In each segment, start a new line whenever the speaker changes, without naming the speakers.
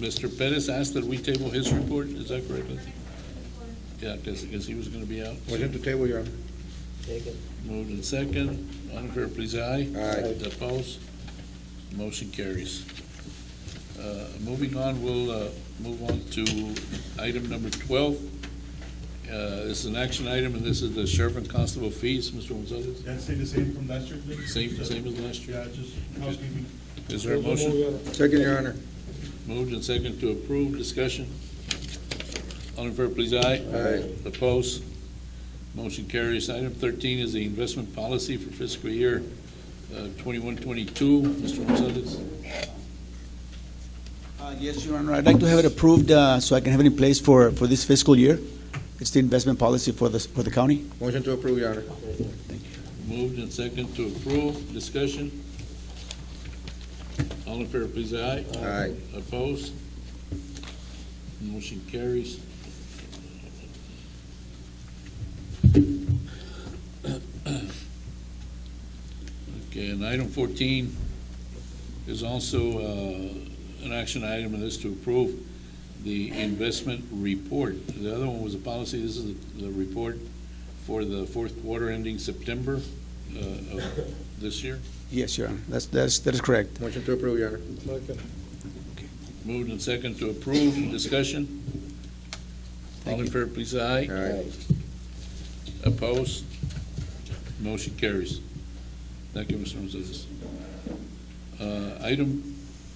Mr. Pettis asked that we table his report, is that correct? Yeah, because, because he was going to be out.
Motion to table, Your Honor.
Moved and second, all in favor, please, aye.
Aye.
Opposed? Motion carries. Uh, Moving on, we'll uh, move on to item number twelve. Uh, This is an action item, and this is the sheriff and constable fees, Mr. Gonzalez.
Yeah, stay the same from last year, please.
Same- same as last year?
Yeah, just housekeeping.
Is there a motion?
Second, Your Honor.
Moved and second to approve, discussion. All in favor, please, aye.
Aye.
Opposed? Motion carries. Item thirteen is the investment policy for fiscal year uh, twenty-one, twenty-two. Mr. Gonzalez,
Uh, Yes, Your Honor, I'd like to have it approved uh, so I can have it in place for, for this fiscal year. It's the investment policy for the, for the county.
Motion to approve, Your Honor.
moved and second to approve, discussion. All in favor, please, aye.
Aye.
Opposed? Motion carries. Okay, and item fourteen is also uh, an action item, and is to approve the investment report. The other one was a policy, this is the report for the fourth quarter ending September uh, of this year.
Yes, Your Honor, that's, that's, that is correct.
Motion to approve, Your Honor.
Moved and second to approve, discussion. All in favor, please, aye.
Aye.
Opposed? Motion carries. Thank you, Mr. Gonzalez. Uh, Item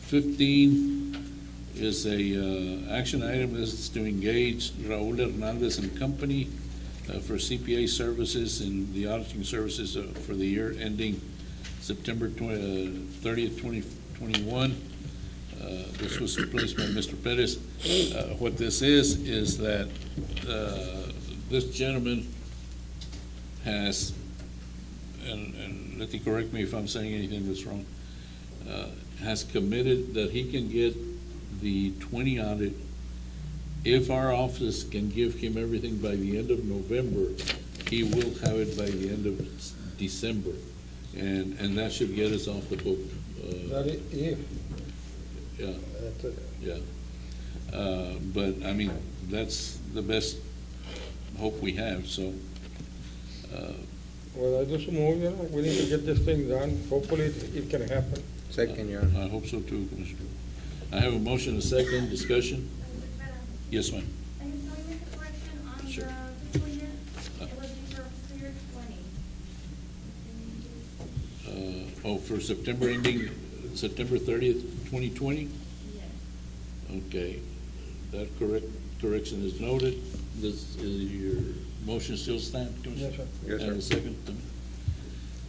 fifteen is a uh, action item, This is to engage Raul Hernandez and Company uh, for CPA services and the auditing services uh, for the year ending September uh, thirtieth, twenty twenty-one. Uh, This was replaced by Mr. Pettis. Uh, What this is, is that uh, this gentleman has, and, and let me correct me if I'm saying anything that's wrong, uh, has committed that he can get the twenty audit if our office can give him everything by the end of November, he will have it by the end of s- December. And, and that should get us off the book. uh,
Not i- if,
Yeah,
that's it.
yeah. Uh, But, I mean, that's the best hope we have, so. uh,
well, I just move, you know, we need to get this thing done, hopefully it it can happen.
Second, Your Honor.
I hope so too, Commissioner. I have a motion, a second, discussion? Yes, ma'am.
I just want to make a correction on
Sure.
the fiscal year. It would be for fiscal year twenty.
Uh, Oh, for September ending, September 30th, 2020?
Yes.
Okay, that correct, correction is noted. Does, is your motion still stand, Commissioner?
Yes, sir.
Yes, sir.
And a second?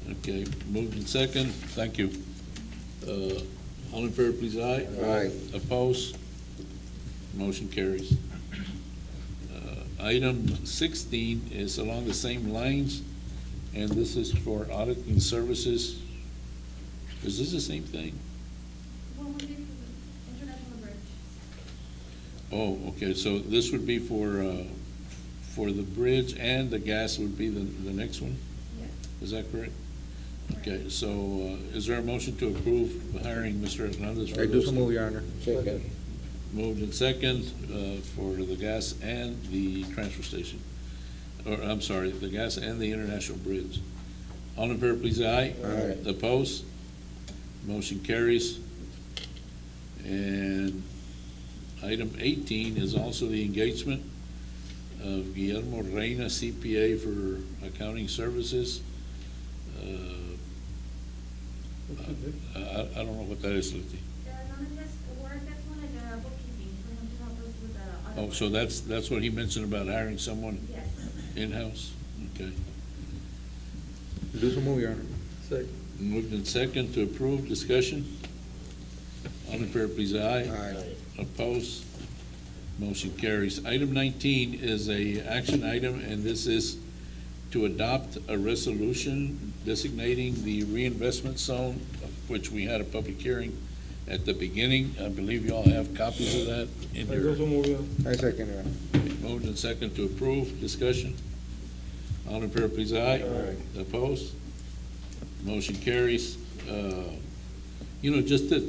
Okay, moved in second, thank you. Uh, All in favor, please, aye.
Aye.
Opposed? Motion carries. Uh, Item sixteen is along the same lines, and this is for auditing services. Is this the same thing?
What would be the international bridge?
Oh, okay, so this would be for, uh, for the bridge and the gas would be the, the next one?
Yes.
Is that correct? Okay, so uh, is there a motion to approve hiring Mr. Hernandez? for
I do
those-
so move, Your Honor.
Second.
Moved in second uh, for the gas and the transfer station. Or, I'm sorry, the gas and the international bridge. All in favor, please, aye.
Aye.
Opposed? Motion carries. And item eighteen is also the engagement of Guillermo Reyna CPA for accounting services. Uh, I, I I don't know what that is, Leti.
The anonymous work, that's one of the bookkeeping, for him to help us with the.
Oh,
audit.
so that's, that's what he mentioned about hiring someone
Yes.
in-house? Okay.
Do so move, Your Honor.
Second.
Moved in second to approve, discussion? All in favor, please, aye.
Aye.
Opposed? Motion carries. Item nineteen is a action item, and this is to adopt a resolution designating the reinvestment zone, of which we had a public hearing at the beginning. I believe you all have copies of that in
I
your.
just move, you know.
I second, Your Honor.
Moved and second to approve, discussion. All in favor, please, aye. Opposed? Motion carries. Uh, you know, just the